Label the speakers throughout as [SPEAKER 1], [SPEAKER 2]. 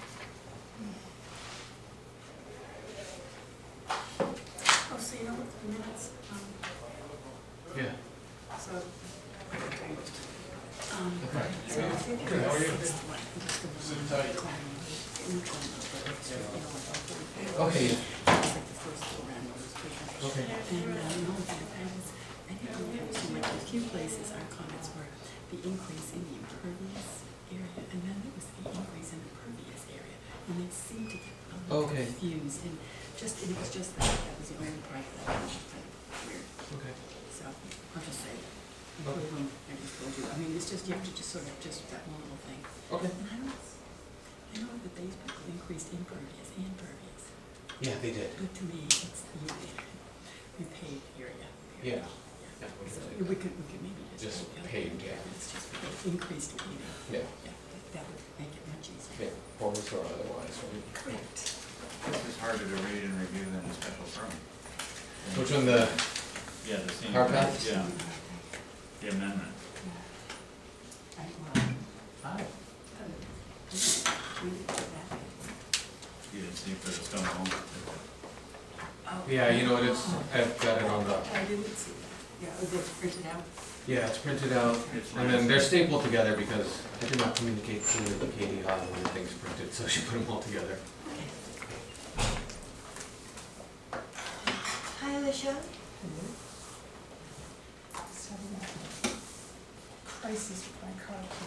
[SPEAKER 1] Oh, um, So. Um, so I think
[SPEAKER 2] Good, how are you?
[SPEAKER 1] it's the one- it's the one
[SPEAKER 2] Sit tight.
[SPEAKER 1] climb, neutral, but it's, you know, like all
[SPEAKER 2] Okay,
[SPEAKER 1] the- it's like the first four rounds, pretty much.
[SPEAKER 2] okay.
[SPEAKER 1] And I know that I was, I think we went to like a few places, our comments were the increase in the impervious area, and then it was the increase in the pervious area. And they seemed to get a little
[SPEAKER 2] Okay.
[SPEAKER 1] confused, and just, it was just that, that was the only part that was just like weird.
[SPEAKER 2] Okay.
[SPEAKER 1] So, I'll just say that. I told
[SPEAKER 2] Okay.
[SPEAKER 1] them, I just told you, I mean, it's just, you have to just sort of, just that one little thing.
[SPEAKER 2] Okay.
[SPEAKER 1] And I don't, I know that these people increased impervious and pervious.
[SPEAKER 2] Yeah, they did.
[SPEAKER 1] But to me, it's the repaved area.
[SPEAKER 2] Yeah.
[SPEAKER 1] Yeah.
[SPEAKER 2] Yeah, we
[SPEAKER 1] So
[SPEAKER 2] can take
[SPEAKER 1] we could, we could maybe just.
[SPEAKER 2] Just
[SPEAKER 1] take out
[SPEAKER 2] paved,
[SPEAKER 1] the-
[SPEAKER 2] yeah.
[SPEAKER 1] It's just paved, increased paving,
[SPEAKER 2] Yeah,
[SPEAKER 1] yeah, that- that would make it much easier.
[SPEAKER 2] yeah, forwards or otherwise, right?
[SPEAKER 1] Correct.
[SPEAKER 3] This is harder to read and review than a special permit.
[SPEAKER 2] Which one, the,
[SPEAKER 3] Yeah, the same.
[SPEAKER 2] Hard pass?
[SPEAKER 3] Yeah, the amendment.
[SPEAKER 1] I, well, uh,
[SPEAKER 2] hi,
[SPEAKER 1] we did that.
[SPEAKER 3] You didn't see for the stone wall.
[SPEAKER 1] Oh.
[SPEAKER 2] yeah, you know, what, it's,
[SPEAKER 4] Oh.
[SPEAKER 2] I've got it on the,
[SPEAKER 1] I didn't see that, yeah, was it printed out?
[SPEAKER 2] yeah, it's printed out. And then they're stapled together because I did not communicate clearly with Katie on when things printed, so she put them all together.
[SPEAKER 5] Hi, Alicia.
[SPEAKER 4] Just having a crisis with my car key.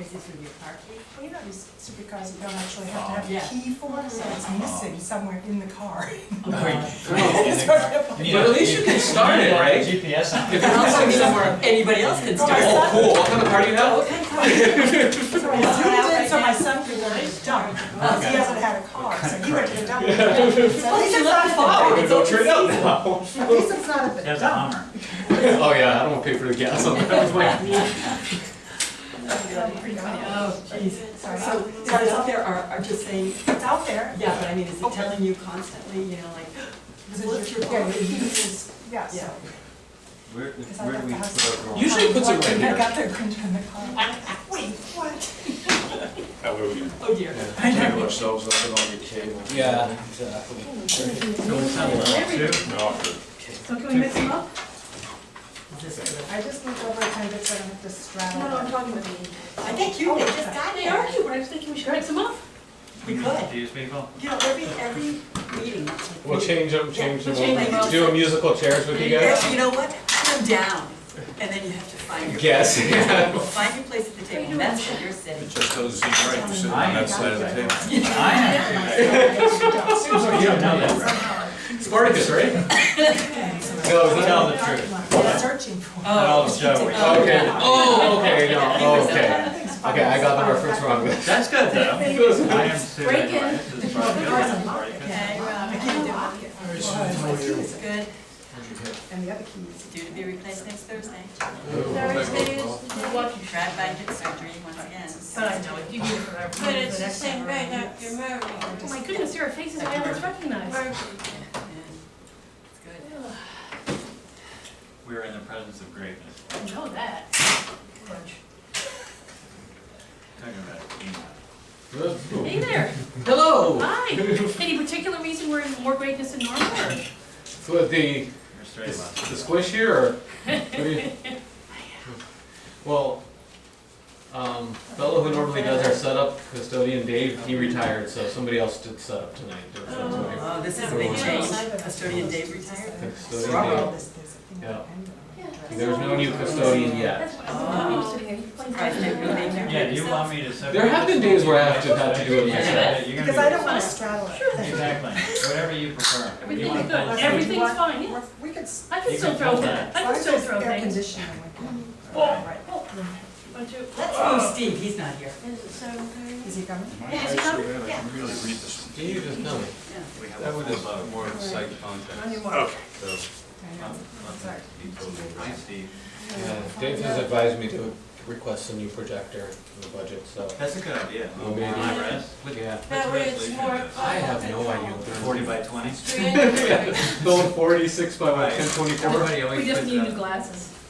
[SPEAKER 1] Is this with your car key?
[SPEAKER 4] Well, you know, these supercars, you don't actually have to
[SPEAKER 1] Yeah.
[SPEAKER 4] have a key for, so it's missing somewhere in the car. It's
[SPEAKER 2] But
[SPEAKER 4] hard to find.
[SPEAKER 2] at least you can start it, right? If
[SPEAKER 3] GPS on.
[SPEAKER 2] it's missing somewhere,
[SPEAKER 1] Anybody else can
[SPEAKER 4] Oh,
[SPEAKER 1] start.
[SPEAKER 4] my
[SPEAKER 2] oh, cool, what kind of car do you have?
[SPEAKER 1] Okay,
[SPEAKER 4] So I zoomed in so my son could learn his jump, because he hasn't had a car, so he went to the dump. So at least it's not a
[SPEAKER 2] Oh,
[SPEAKER 4] bad-
[SPEAKER 2] we're gonna go turn it out now.
[SPEAKER 4] At least it's not a bad-
[SPEAKER 3] That's a Hummer.
[SPEAKER 2] Oh, yeah, I don't wanna pay for the gas on that one.
[SPEAKER 4] pretty good.
[SPEAKER 1] Oh, jeez.
[SPEAKER 4] Sorry.
[SPEAKER 1] So, so it's out there, are, are just saying,
[SPEAKER 4] It's out there.
[SPEAKER 1] yeah, but I mean, is it telling you constantly, you know, like, what's your
[SPEAKER 4] Yeah, the key
[SPEAKER 1] phone?
[SPEAKER 4] is, yeah, so.
[SPEAKER 1] Yeah.
[SPEAKER 3] Where,
[SPEAKER 4] Because I
[SPEAKER 3] where do
[SPEAKER 4] got
[SPEAKER 3] we
[SPEAKER 4] the house.
[SPEAKER 3] put our roll?
[SPEAKER 2] Usually it puts it
[SPEAKER 4] Um,
[SPEAKER 2] right
[SPEAKER 4] I
[SPEAKER 2] here.
[SPEAKER 4] got the cringe in the car. Wait, what?
[SPEAKER 1] Oh dear.
[SPEAKER 6] Tangle ourselves up with all your cable.
[SPEAKER 2] Yeah, exactly.
[SPEAKER 3] So it's not allowed to?
[SPEAKER 1] So can we mix them up?
[SPEAKER 4] I just looked over appendix and I have to straddle.
[SPEAKER 5] No, no, I'm
[SPEAKER 4] it.
[SPEAKER 5] talking with me.
[SPEAKER 1] I think you, they just got, they argue,
[SPEAKER 5] I was thinking we
[SPEAKER 1] should mix them up. We could,
[SPEAKER 3] These people?
[SPEAKER 1] you know, every, every meeting. it's like-
[SPEAKER 2] We'll change them, change them,
[SPEAKER 1] Yeah, we'll change
[SPEAKER 2] we'll
[SPEAKER 1] them.
[SPEAKER 2] do a musical chairs with you guys.
[SPEAKER 1] Yeah, You know what, put them down, and then you have to find your.
[SPEAKER 2] Guess, yeah.
[SPEAKER 1] Find your place at the table, that's where you're sitting.
[SPEAKER 6] It just doesn't seem right to sit on that side of the table.
[SPEAKER 3] I am.
[SPEAKER 2] Oh, You don't know that. Spartacus, right? No, tell the truth.
[SPEAKER 4] What I'm searching for.
[SPEAKER 3] Oh, it's Joey.
[SPEAKER 2] Okay, oh, okay, no, okay. Okay,
[SPEAKER 4] Okay,
[SPEAKER 2] I got the reference wrong.
[SPEAKER 3] That's good though. I am too.
[SPEAKER 5] Break in.
[SPEAKER 3] This is probably good. Break in.
[SPEAKER 1] Okay, Rob, I can do it. It's good,
[SPEAKER 4] And the other key is.
[SPEAKER 1] due to be replaced next Thursday.
[SPEAKER 5] Thursdays.
[SPEAKER 1] Brad Biden had surgery once again.
[SPEAKER 7] But I know, if you do it for every.
[SPEAKER 5] But it's the same way, Dr. Murray.
[SPEAKER 7] Oh my goodness, your face is never recognized.
[SPEAKER 5] Murray.
[SPEAKER 1] Yeah, It's good.
[SPEAKER 3] We are in the presence of greatness.
[SPEAKER 7] I know that. Crunch.
[SPEAKER 3] Talking about email.
[SPEAKER 7] Hey there,
[SPEAKER 2] Hello!
[SPEAKER 7] hi. Any particular reason we're in more greatness than normal? or-
[SPEAKER 2] So the,
[SPEAKER 3] You're straight
[SPEAKER 2] is
[SPEAKER 3] left.
[SPEAKER 2] the squish here, or? what do you- Well, um, fellow who normally does our setup, custodian Dave, he retired, so somebody else did setup tonight.
[SPEAKER 1] Oh, this is a big change. Custodian Dave retired.
[SPEAKER 2] Custodian Dave. Yeah. There's no new custodian yet.
[SPEAKER 7] That's what I'm
[SPEAKER 1] Oh.
[SPEAKER 7] used to here.
[SPEAKER 1] Surprised they really made their-
[SPEAKER 3] Yeah, do you want me to separate?
[SPEAKER 2] There have been days where I have to-
[SPEAKER 3] have
[SPEAKER 2] had to do it myself.
[SPEAKER 4] Because I don't wanna straddle it.
[SPEAKER 3] Exactly, whatever you prefer. You
[SPEAKER 7] Everything's
[SPEAKER 3] wanna
[SPEAKER 7] good,
[SPEAKER 3] pull it?
[SPEAKER 7] everything's fine, yeah.
[SPEAKER 4] We could, s-
[SPEAKER 7] I
[SPEAKER 3] You
[SPEAKER 7] can still
[SPEAKER 3] can
[SPEAKER 7] throw
[SPEAKER 3] pull
[SPEAKER 7] that,
[SPEAKER 3] that.
[SPEAKER 7] I
[SPEAKER 4] as long
[SPEAKER 7] can
[SPEAKER 4] as
[SPEAKER 7] still
[SPEAKER 4] there's
[SPEAKER 7] throw
[SPEAKER 4] air
[SPEAKER 7] things.
[SPEAKER 4] conditioning, we can.
[SPEAKER 7] Oh,
[SPEAKER 4] Right.
[SPEAKER 7] oh. One, two.
[SPEAKER 1] Let's move Steve, he's not here.
[SPEAKER 5] Is it seven thirty?
[SPEAKER 4] Is he coming?
[SPEAKER 6] Might
[SPEAKER 5] Yeah, it's
[SPEAKER 6] actually
[SPEAKER 5] covered,
[SPEAKER 6] have it.
[SPEAKER 5] yeah.
[SPEAKER 6] I can really read this one.
[SPEAKER 2] You just tell me.
[SPEAKER 3] We have
[SPEAKER 6] That
[SPEAKER 3] a
[SPEAKER 6] would
[SPEAKER 3] full
[SPEAKER 6] have
[SPEAKER 3] vote.
[SPEAKER 6] more of a site context.
[SPEAKER 4] Anymore.
[SPEAKER 6] So,
[SPEAKER 4] I know. Sorry.
[SPEAKER 3] Hi, Steve.
[SPEAKER 2] Yeah, Uh, Dave has advised me to request a new projector in the budget, so.
[SPEAKER 3] That's a good idea.
[SPEAKER 2] Oh, man.
[SPEAKER 3] Am I right? With-
[SPEAKER 2] Yeah.
[SPEAKER 5] That way it's
[SPEAKER 3] resolution.
[SPEAKER 5] more.
[SPEAKER 2] I have no idea.
[SPEAKER 3] Forty by twenty?
[SPEAKER 5] Three hundred.
[SPEAKER 2] Build forty-six by
[SPEAKER 3] what,
[SPEAKER 2] ten twenty-four?
[SPEAKER 7] We just need new glasses.